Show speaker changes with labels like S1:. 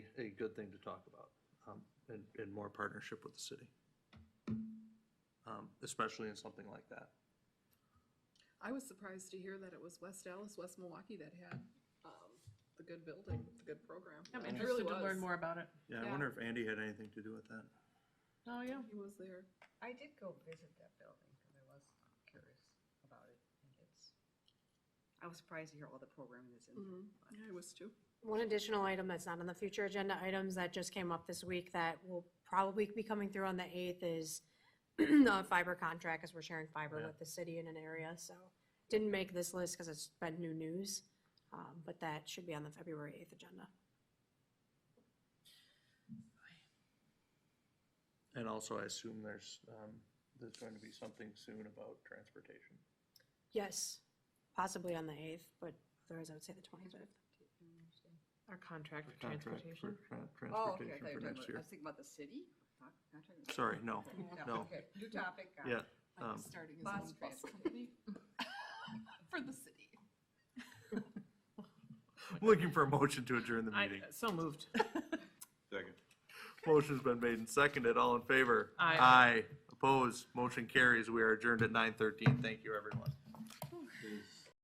S1: a good thing to talk about, um, and, and more partnership with the city. Um, especially in something like that.
S2: I was surprised to hear that it was West Dallas, West Milwaukee that had um, the good building, the good program.
S3: I'm
S2: It
S3: interested
S2: really
S3: to learn
S2: was.
S3: more about it.
S1: Yeah, I
S2: Yeah.
S1: wonder if Andy had anything to do with that.
S3: Oh, yeah.
S2: He was there.
S4: I did go visit that building because I was curious about it. and it's- I was surprised to hear all the programming that's in there.
S2: Mhm. Yeah, I was too.
S5: Mm-hmm. One additional item that's not on the future agenda items that just came up this week that will probably be coming through on the eighth is the fiber contract, because we're sharing fiber
S1: Yeah.
S5: with the city in an area, so didn't make this list because it's been new news, um, but that should be on the February eighth agenda.
S1: And also, I assume there's, um, there's going to be something soon about transportation.
S5: Yes, possibly on the eighth, but otherwise I would say the twenty-fifth.
S3: Our contract for
S1: Contract
S3: transportation.
S1: for tran-
S4: Oh, okay, I
S1: Transportation
S4: thought you
S1: for
S4: were talking
S1: next
S4: about, I
S1: year.
S4: was thinking about the city. not- not talking about-
S1: Sorry, no,
S4: Okay,
S1: no.
S4: okay, New topic. got it.
S1: yeah,
S2: Like
S1: um,
S2: uh, starting his
S4: bus
S2: own bus
S4: transportation.
S2: company. For the city.
S1: looking for a motion to adjourn the
S3: I,
S1: meeting.
S3: so moved.
S6: Second.
S1: Motion's been made and seconded, all in favor?
S3: Aye.
S1: Aye, opposed, motion carries, we are adjourned at nine thirteen, thank you, everyone.